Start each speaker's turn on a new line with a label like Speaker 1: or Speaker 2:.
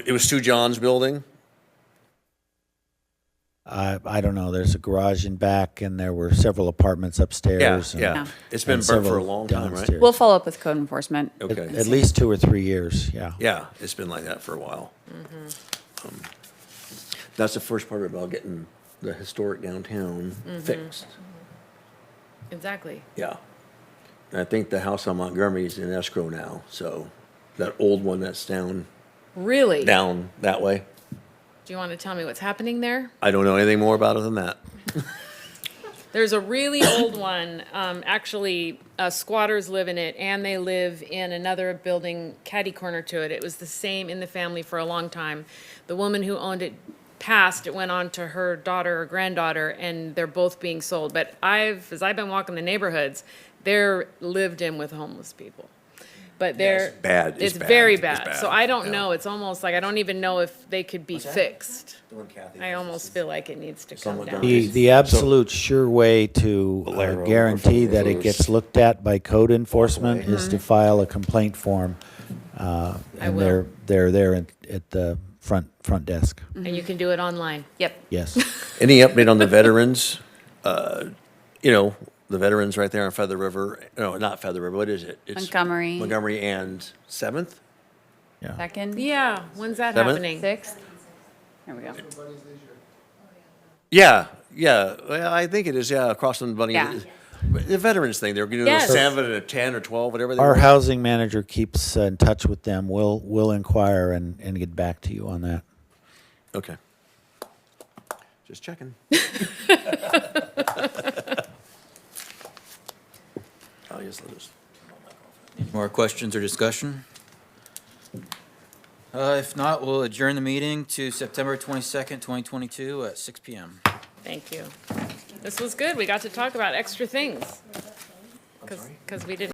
Speaker 1: It was Sue John's building.
Speaker 2: I, I don't know, there's a garage in back and there were several apartments
Speaker 1: Yeah,
Speaker 2: upstairs. and-
Speaker 1: yeah.
Speaker 2: uh, and
Speaker 1: It's been burnt for a
Speaker 2: several
Speaker 1: long time, right?
Speaker 2: downstairs.
Speaker 3: We'll follow up with code enforcement.
Speaker 2: At
Speaker 1: Okay.
Speaker 2: at least two or three years, yeah.
Speaker 1: Yeah, it's been like that for a while.
Speaker 4: Mm-hmm.
Speaker 1: Um, That's the first part about getting the historic downtown
Speaker 4: Mm-hmm.
Speaker 1: fixed.
Speaker 4: Exactly.
Speaker 1: Yeah. And I think the house on Montgomery is in escrow now, so that old one that's down,
Speaker 4: Really? Do
Speaker 1: down that way.
Speaker 4: you want to tell me what's happening there?
Speaker 1: I don't know anything more about it than that.
Speaker 4: There's a really old one. Um, actually, uh, squatters live in it, and they live in another building catty corner to it. It was the same in the family for a long time. The woman who owned it passed. It went on to her daughter or granddaughter, and they're both being sold. But I've, as I've been walking the neighborhoods, they're lived in with homeless people. But they're
Speaker 1: bad. It's
Speaker 4: It's,
Speaker 1: bad.
Speaker 4: very
Speaker 1: It's
Speaker 4: bad.
Speaker 1: bad.
Speaker 4: So I don't
Speaker 1: Yeah.
Speaker 4: know. It's almost like I don't even know if they could be fixed.
Speaker 1: one Kathy
Speaker 4: I
Speaker 1: has
Speaker 4: almost feel like it needs to come
Speaker 1: Someone
Speaker 4: down.
Speaker 1: down.
Speaker 2: The, the absolute sure way to uh,
Speaker 1: Valero,
Speaker 2: guarantee that it
Speaker 1: Rose.
Speaker 2: gets looked at by code enforcement is to file a complaint form. uh, And
Speaker 4: will.
Speaker 2: they're, they're there in- at the front, front desk,
Speaker 4: And you can do it online.
Speaker 3: Yep.
Speaker 2: yes.
Speaker 1: Any update on the veterans? Uh, You know, the veterans right there on Feather River, no, not Feather River, what is it? It's
Speaker 3: Montgomery.
Speaker 1: Montgomery and Seventh?
Speaker 2: Yeah.
Speaker 3: Second?
Speaker 4: Yeah, when's that
Speaker 1: Seventh?
Speaker 4: happening?
Speaker 3: Sixth? There we go.
Speaker 1: Yeah, yeah, well, I think it is, yeah, across from Bunny.
Speaker 3: Yeah.
Speaker 1: But The veterans thing, they were gonna do a
Speaker 4: Yes.
Speaker 1: seven and a ten or twelve, whatever they
Speaker 2: Our
Speaker 1: were.
Speaker 2: housing manager keeps uh, in touch with them. We'll, we'll inquire and, and get back to you on that.
Speaker 1: Okay. Just checking. Oh, yes, let us.
Speaker 5: More questions or discussion? Uh, If not, we'll adjourn the meeting to September 22nd, 2022 at 6 PM.
Speaker 4: Thank you. This was good. We got to talk about extra things. Because we didn't.